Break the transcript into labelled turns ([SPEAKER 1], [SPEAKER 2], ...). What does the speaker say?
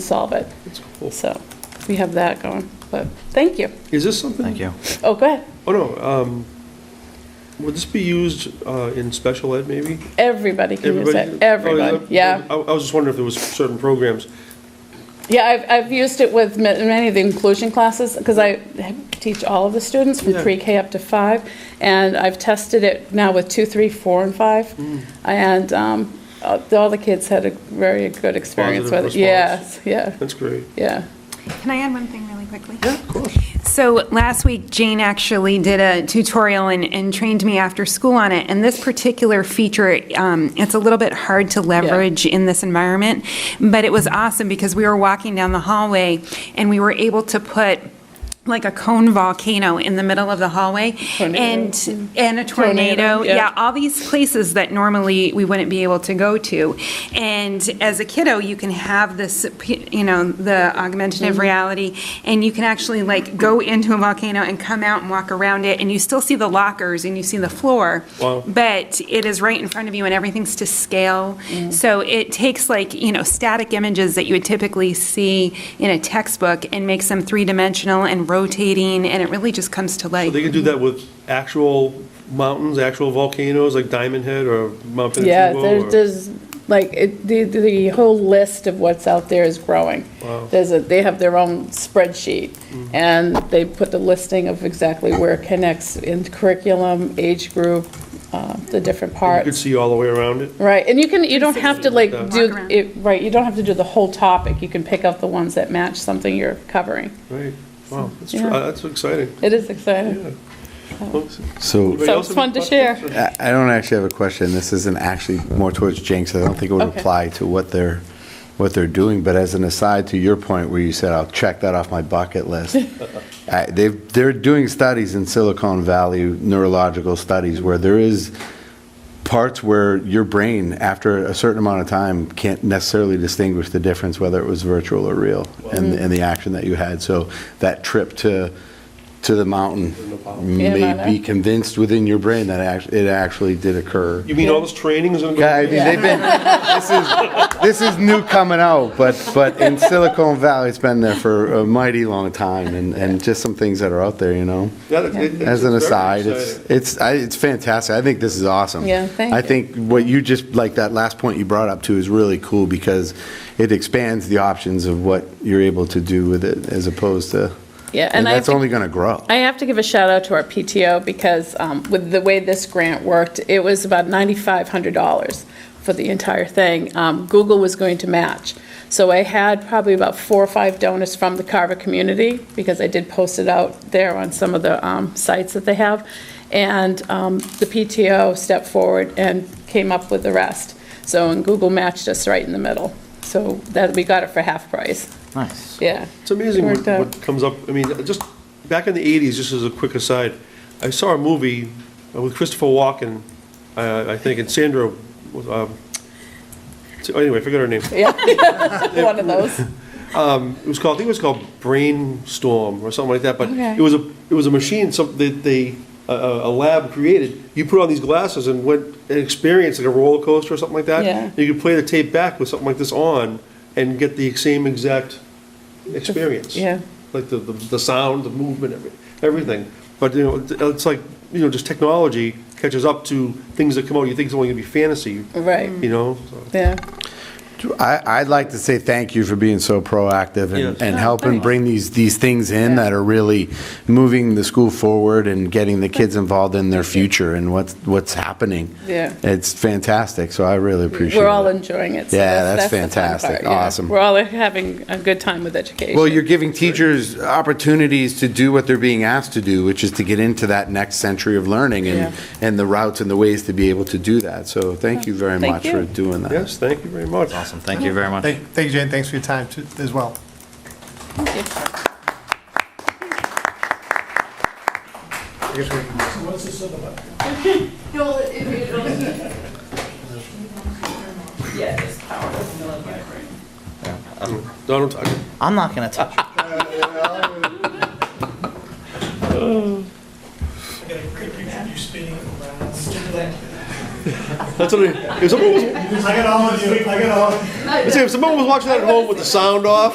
[SPEAKER 1] solve it.
[SPEAKER 2] That's cool.
[SPEAKER 1] So we have that going, but thank you.
[SPEAKER 2] Is this something?
[SPEAKER 3] Thank you.
[SPEAKER 1] Oh, go ahead.
[SPEAKER 2] Oh, no, um, would this be used, uh, in special ed maybe?
[SPEAKER 1] Everybody can use
[SPEAKER 2] Everybody-
[SPEAKER 1] it. e-, Everybody,
[SPEAKER 2] Oh,
[SPEAKER 1] yeah.
[SPEAKER 2] I, I was just wondering if there was certain programs.
[SPEAKER 1] Yeah, I've, I've used it with ma- many of the inclusion classes, because I teach all of the students from
[SPEAKER 2] Yeah.
[SPEAKER 1] pre-K up to five, and I've tested it now with two, three, four, and five, and um, uh, all the kids had a very good experience
[SPEAKER 2] Positive
[SPEAKER 1] with it. Yes,
[SPEAKER 2] response.
[SPEAKER 1] yeah,
[SPEAKER 2] That's great.
[SPEAKER 1] yeah.
[SPEAKER 4] Can I add one thing really quickly?
[SPEAKER 2] Yeah, of course.
[SPEAKER 4] So last week, Jane actually did a tutorial and, and trained me after school on it. And this particular feature, um, it's a little bit hard to leverage in this environment, but it was awesome because we were walking down the hallway and we were able to put like a cone volcano in the middle of the hallway
[SPEAKER 1] Tornado.
[SPEAKER 4] and and a
[SPEAKER 1] Tornado,
[SPEAKER 4] tornado
[SPEAKER 1] yeah.
[SPEAKER 4] yeah all these places that normally we wouldn't be able to go to. And as a kiddo, you can have this, you know, the augmentative reality, and you can actually like go into a volcano and come out and walk around it, and you still see the lockers and you see the floor.
[SPEAKER 2] Wow.
[SPEAKER 4] But it is right in front of you, and everything's to scale. So it takes like, you know, static images that you would typically see in a textbook and makes them three dimensional and rotating, and it really just comes to life.
[SPEAKER 2] They could do that with actual mountains, actual volcanoes, like Diamond Head or Mount
[SPEAKER 1] Yeah,
[SPEAKER 2] Pinatubo
[SPEAKER 1] there-
[SPEAKER 2] or-
[SPEAKER 1] there's, like, it- the, the whole list of what's out there is growing.
[SPEAKER 2] Wow.
[SPEAKER 1] There's a, they have their own spreadsheet, and they put the listing of exactly where it connects in curriculum, age group, uh, the different
[SPEAKER 2] You could
[SPEAKER 1] parts.
[SPEAKER 2] see all the way around it.
[SPEAKER 1] Right, and you can, you don't have to like
[SPEAKER 2] Walk
[SPEAKER 1] do,
[SPEAKER 4] around.
[SPEAKER 1] it right, you don't have to do the whole topic. You can pick out the ones that match something you're covering.
[SPEAKER 2] Right. Wow, that's, tr-
[SPEAKER 1] Yeah.
[SPEAKER 2] uh, that's exciting.
[SPEAKER 1] It is exciting.
[SPEAKER 2] Yeah. Well,
[SPEAKER 3] So
[SPEAKER 2] anybody
[SPEAKER 1] So it's
[SPEAKER 2] else have
[SPEAKER 1] fun
[SPEAKER 2] any
[SPEAKER 1] to share.
[SPEAKER 2] questions?
[SPEAKER 3] I I don't actually have a question. This isn't actually more towards Jane, so I don't think it would
[SPEAKER 1] Okay.
[SPEAKER 3] apply to what they're, what they're doing. But as an aside to your point where you said, I'll check that off my bucket list. I- They've, they're doing studies in Silicon Valley, neurological studies, where there is parts where your brain, after a certain amount of time, can't necessarily distinguish the difference whether it was virtual or real and,
[SPEAKER 1] Mm-hmm.
[SPEAKER 3] and the action that you had. So that trip to, to the mountain
[SPEAKER 1] Yeah,
[SPEAKER 3] may
[SPEAKER 1] Nepal.
[SPEAKER 3] be convinced within your brain that act- it actually did occur.
[SPEAKER 2] You mean all this training is gonna go?
[SPEAKER 3] Yeah, I mean, they've been, this is, this is new coming out, but, but in Silicon Valley, it's been there for a mighty long time and, and just some things that are out there, you know?
[SPEAKER 2] Yeah, it- it-
[SPEAKER 3] As an
[SPEAKER 2] it's very
[SPEAKER 3] aside, it's,
[SPEAKER 2] exciting.
[SPEAKER 3] it's, I- it's fantastic. I think this is awesome.
[SPEAKER 1] Yeah, thank
[SPEAKER 3] I
[SPEAKER 1] you.
[SPEAKER 3] think what you just, like that last point you brought up too is really cool because it expands the options of what you're able to do with it as opposed to,
[SPEAKER 1] Yeah,
[SPEAKER 3] and
[SPEAKER 1] and I.
[SPEAKER 3] that's
[SPEAKER 1] think-
[SPEAKER 3] only going to grow.
[SPEAKER 1] I have to give a shout out to our PTO because um, with the way this grant worked, it was about $9,500 for the entire thing. Um, Google was going to match. So I had probably about four or five donors from the Carver community because I did post it out there on some of the um, sites that they have. And um, the PTO stepped forward and came up with the rest. So, and Google matched us right in the middle. So that, we got it for half price.
[SPEAKER 5] Nice.
[SPEAKER 1] Yeah.
[SPEAKER 2] It's amazing what
[SPEAKER 1] Worked out.
[SPEAKER 2] what comes up, I mean, just, back in the 80s, just as a quick aside, I saw a movie uh, with Christopher Walken, uh, I think, and Sandra, was, um, so anyway, I forgot her name.
[SPEAKER 1] One of those.
[SPEAKER 2] It was called, I think it was called Brainstorm or something like that, but
[SPEAKER 1] Okay.
[SPEAKER 2] it was a, it was a machine, some, that they, a- a, a lab created. You put on these glasses and went, and experienced like a roller coaster or something like that.
[SPEAKER 1] Yeah.
[SPEAKER 2] You could play the tape back with something like this on and get the same exact experience.
[SPEAKER 1] Yeah.
[SPEAKER 2] like the, the, the sound, the movement, every- everything. But, you know, it- it's like, you know, just technology catches up to things that come out, you think it's only gonna be fantasy,
[SPEAKER 1] Right.
[SPEAKER 2] you know? so.
[SPEAKER 1] Yeah.
[SPEAKER 3] I, I'd like to say thank you for being so proactive
[SPEAKER 2] Yes.
[SPEAKER 3] and, and helping bring these, these things in that are really moving the school forward and getting the kids involved in their future and what's, what's happening.
[SPEAKER 1] Yeah.
[SPEAKER 3] It's fantastic, so I really appreciate it.
[SPEAKER 1] We're all enjoying it. so
[SPEAKER 3] Yeah, that's
[SPEAKER 1] the fun part,
[SPEAKER 3] fantastic.
[SPEAKER 1] yeah.
[SPEAKER 3] Awesome.
[SPEAKER 1] We're all having a good time with education.
[SPEAKER 3] Well, you're giving teachers opportunities to do what they're being asked to do, which is to get into that next century of learning and,
[SPEAKER 1] Yeah.
[SPEAKER 3] and the routes and the ways to be able to do that. So thank you very
[SPEAKER 1] Thank
[SPEAKER 3] much
[SPEAKER 1] you.
[SPEAKER 3] for doing that.
[SPEAKER 2] Yes, thank you very much.
[SPEAKER 5] Awesome. Thank you very much.
[SPEAKER 6] Thank thank you, Jane. Thanks for your time too- as well. I guess we can-
[SPEAKER 1] Yeah, this power is milling my brain.
[SPEAKER 2] Donald, I-
[SPEAKER 5] I'm not going to touch it.
[SPEAKER 2] that's what, I- if someone was,
[SPEAKER 6] I got all of you, I got all of you.
[SPEAKER 2] let's say if someone was watching that at home with the sound off,